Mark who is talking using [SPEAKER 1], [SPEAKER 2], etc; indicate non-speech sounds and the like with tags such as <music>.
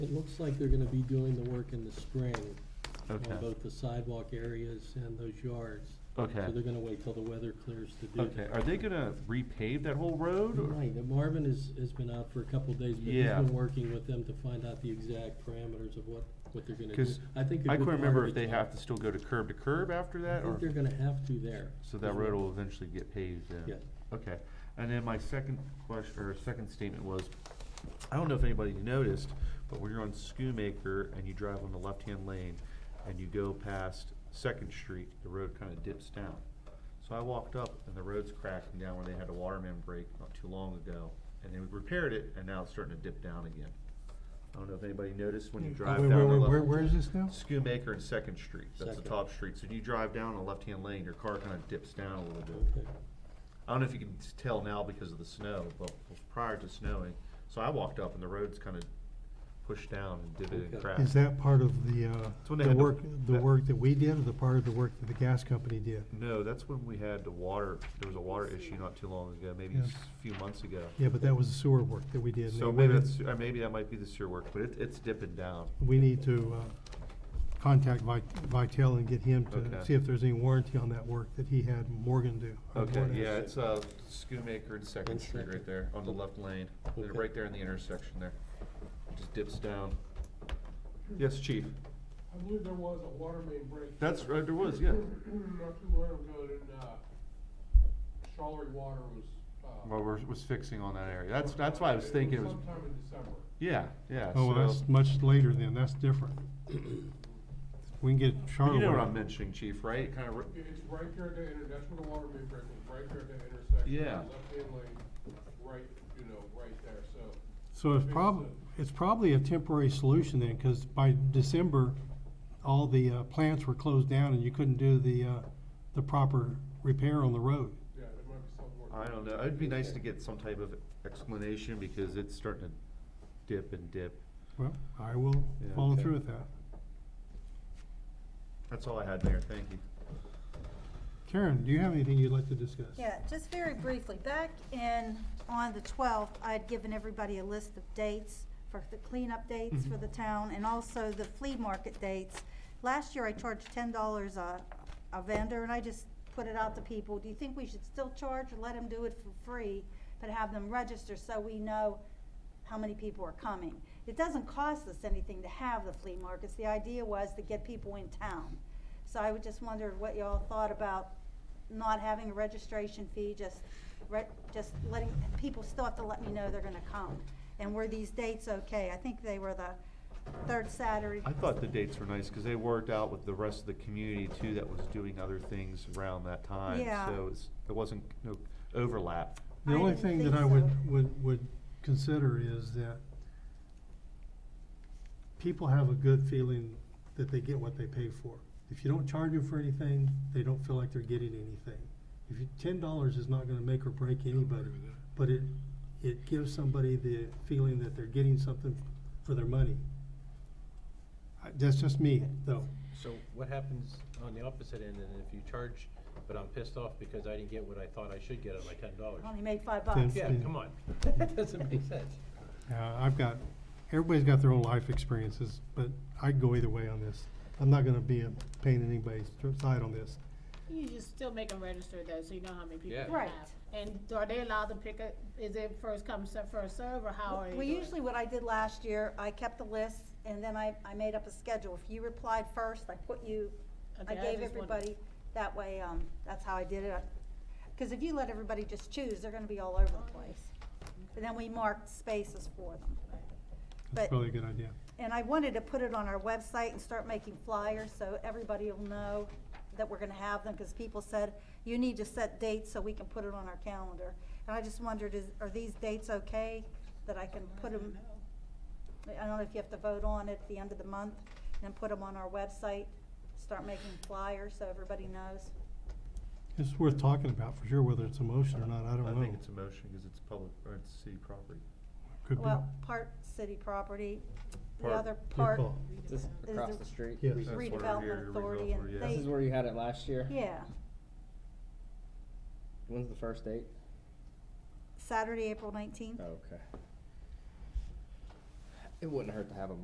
[SPEAKER 1] It looks like they're gonna be doing the work in the spring
[SPEAKER 2] Okay.
[SPEAKER 1] on both the sidewalk areas and those yards.
[SPEAKER 2] Okay.
[SPEAKER 1] So they're gonna wait till the weather clears to do
[SPEAKER 2] Okay,
[SPEAKER 1] that.
[SPEAKER 2] are they gonna repave that whole road? or-
[SPEAKER 1] Right, and Marvin has, has been out for a couple of days, but he's
[SPEAKER 2] Yeah.
[SPEAKER 1] been working with them to find out the exact parameters of what, what they're gonna do.
[SPEAKER 2] Cause
[SPEAKER 1] I think a
[SPEAKER 2] I
[SPEAKER 1] good
[SPEAKER 2] couldn't
[SPEAKER 1] part
[SPEAKER 2] remember
[SPEAKER 1] of
[SPEAKER 2] if they
[SPEAKER 1] it's-
[SPEAKER 2] have to still go to curb to curb after
[SPEAKER 1] I
[SPEAKER 2] that or,
[SPEAKER 1] think they're gonna have to there.
[SPEAKER 2] so that road will eventually get paved then?
[SPEAKER 1] Yeah.
[SPEAKER 2] Okay, and then my second question, or second statement was, I don't know if anybody noticed, but when you're on Schoonmaker and you drive on the left-hand lane and you go past Second Street, the road kinda dips down. So I walked up and the road's cracking down where they had a waterman break not too long ago, and they repaired it, and now it's starting to dip down again. I don't know if anybody noticed when you drive down
[SPEAKER 3] Mm. Wait,
[SPEAKER 2] the
[SPEAKER 3] wait, wait,
[SPEAKER 2] left.
[SPEAKER 3] Where, where is this now?
[SPEAKER 2] Schoonmaker and Second Street, that's the
[SPEAKER 1] Second.
[SPEAKER 2] top street, so when you drive down the left-hand lane, your car kinda dips down a little bit.
[SPEAKER 1] Okay.
[SPEAKER 2] I don't know if you can s- tell now because of the snow, but prior to snowing, so I walked up and the road's kind of pushed down and divvied and
[SPEAKER 1] Okay.
[SPEAKER 2] cracked.
[SPEAKER 3] Is that part of the, uh,
[SPEAKER 2] It's when they
[SPEAKER 3] the
[SPEAKER 2] had the-
[SPEAKER 3] work, the
[SPEAKER 2] that-
[SPEAKER 3] work that we did, or the part of the work that the gas company did?
[SPEAKER 2] No, that's when we had the water, there was a water issue not too long ago, maybe
[SPEAKER 3] Yeah.
[SPEAKER 2] s- a few months ago.
[SPEAKER 3] Yeah, but that was the sewer work that we did. and
[SPEAKER 2] So
[SPEAKER 3] they
[SPEAKER 2] maybe
[SPEAKER 3] waited-
[SPEAKER 2] that's, or maybe that might be the sewer work, but it, it's dipping down.
[SPEAKER 3] We need to, uh, contact Vi- Vitale and get him
[SPEAKER 2] Okay.
[SPEAKER 3] to see if there's any warranty on that work that he had Morgan do. or
[SPEAKER 2] Okay,
[SPEAKER 3] Morgan.
[SPEAKER 2] yeah, it's, uh, Schoonmaker and Second
[SPEAKER 1] And
[SPEAKER 2] Street right
[SPEAKER 1] Second.
[SPEAKER 2] there on the left lane, They're
[SPEAKER 1] Okay.
[SPEAKER 2] right there in the intersection there. It Just dips down. Yes, chief?
[SPEAKER 4] I believe there was a water main break.
[SPEAKER 2] That's, right, there was, yeah.
[SPEAKER 4] Not too long ago, and, uh, Charleroy Water was, uh.
[SPEAKER 2] Well, we're, was fixing on that area. That's, that's why I was thinking it was,
[SPEAKER 4] Sometime in December.
[SPEAKER 2] yeah, yeah.
[SPEAKER 3] Oh, well,
[SPEAKER 2] so-
[SPEAKER 3] that's much later then, that's different. We can get
[SPEAKER 2] But
[SPEAKER 3] Charlotte.
[SPEAKER 2] You know what I'm mentioning, chief, right? Kind of,
[SPEAKER 4] It- It's right there at the inter, that's where the water main break was, right there at the intersection.
[SPEAKER 2] Yeah.
[SPEAKER 4] Left hand lane, right, you know, right there, so.
[SPEAKER 3] So it's
[SPEAKER 4] Fix
[SPEAKER 3] prob,
[SPEAKER 4] it.
[SPEAKER 3] it's probably a temporary solution then, because by December, all the uh, plants were closed down and you couldn't do the, uh, the proper repair on the road.
[SPEAKER 4] Yeah, there might be something. more-
[SPEAKER 2] I don't know. It'd be nice to get some type of explanation because it's starting to dip and dip.
[SPEAKER 3] Well, I will
[SPEAKER 2] Yeah,
[SPEAKER 3] follow
[SPEAKER 2] okay.
[SPEAKER 3] through with that.
[SPEAKER 2] That's all I had, Mayor. Thank you.
[SPEAKER 3] Karen, do you have anything you'd like to discuss?
[SPEAKER 5] Yeah, just very briefly, back in, on the twelfth, I'd given everybody a list of dates for the cleanup dates for the town and also the flea market dates. Last year I charged ten dollars a, a vendor and I just put it out to people, do you think we should still charge or let them do it for free? But have them register so we know how many people are coming. It doesn't cost us anything to have the flea markets, the idea was to get people in town. So I would just wonder what y'all thought about not having a registration fee, just, re- just letting, people still have to let me know they're gonna come. And were these dates okay? I think they were the third Saturday.
[SPEAKER 2] I thought the dates were nice because they worked out with the rest of the community too that was doing other things around that time.
[SPEAKER 5] Yeah.
[SPEAKER 2] So it's, it wasn't, no overlap.
[SPEAKER 3] The
[SPEAKER 5] I
[SPEAKER 3] only
[SPEAKER 5] didn't
[SPEAKER 3] thing that
[SPEAKER 5] think
[SPEAKER 3] I would,
[SPEAKER 5] so.
[SPEAKER 3] would, would consider is that people have a good feeling that they get what they pay for. If you don't charge them for anything, they don't feel like they're getting anything. If you, ten dollars is not gonna make or break anybody, but it, it gives somebody the feeling that they're getting something for their money. I- That's just me, though.
[SPEAKER 6] So what happens on the opposite end, and if you charge, but I'm pissed off because I didn't get what I thought I should get at my ten dollars?
[SPEAKER 5] Only made five
[SPEAKER 3] Then-
[SPEAKER 5] bucks.
[SPEAKER 6] Yeah,
[SPEAKER 3] Yeah.
[SPEAKER 6] come on, <laughs> that doesn't make sense.
[SPEAKER 3] Yeah, Uh, I've got, everybody's got their own life experiences, but I'd go either way on this. I'm not gonna be a pain in anybody's side on this.
[SPEAKER 7] You just still make them register though, so you know how many people
[SPEAKER 6] Yeah.
[SPEAKER 7] you
[SPEAKER 5] Right.
[SPEAKER 7] have. And are they allowed to pick up, is it first come, se- first serve, or how are you
[SPEAKER 5] Well,
[SPEAKER 7] doing?
[SPEAKER 5] usually what I did last year, I kept the list and then I, I made up a schedule. If you replied first, I put you, I
[SPEAKER 7] Okay, I
[SPEAKER 5] gave
[SPEAKER 7] just wondered.
[SPEAKER 5] everybody, that way, um, that's how I did it. I- Cause if you let everybody just choose, they're gonna be all over
[SPEAKER 7] Oh,
[SPEAKER 5] the place. And then we marked spaces for them.
[SPEAKER 3] That's
[SPEAKER 5] But-
[SPEAKER 3] probably a good idea.
[SPEAKER 5] And I wanted to put it on our website and start making flyers so everybody will know that we're gonna have them, because people said, you need to set dates so we can put it on our calendar. And I just wondered, is, are these dates okay, that I can put them? I don't know if you have to vote on it at the end of the month, and then put them on our website, start making flyers so everybody knows.
[SPEAKER 3] It's worth talking about for sure, whether it's a motion or not, I don't know.
[SPEAKER 2] think it's a motion because it's public, or it's city property.
[SPEAKER 3] Could be.
[SPEAKER 5] Well, part city property, the
[SPEAKER 2] Part-
[SPEAKER 5] other
[SPEAKER 3] Good
[SPEAKER 5] part,
[SPEAKER 3] call.
[SPEAKER 8] This
[SPEAKER 5] Is
[SPEAKER 8] across
[SPEAKER 5] the-
[SPEAKER 8] the street?
[SPEAKER 3] Yes.
[SPEAKER 2] That's where we're here,
[SPEAKER 5] redevelopment
[SPEAKER 2] redevelopment,
[SPEAKER 5] authority,
[SPEAKER 2] yeah.
[SPEAKER 5] and
[SPEAKER 2] This
[SPEAKER 8] This is
[SPEAKER 5] they,
[SPEAKER 8] where you had it last year?
[SPEAKER 5] yeah,
[SPEAKER 8] When's the first date?
[SPEAKER 5] Oh, Saturday, April nineteenth.
[SPEAKER 8] Okay. It wouldn't hurt to have a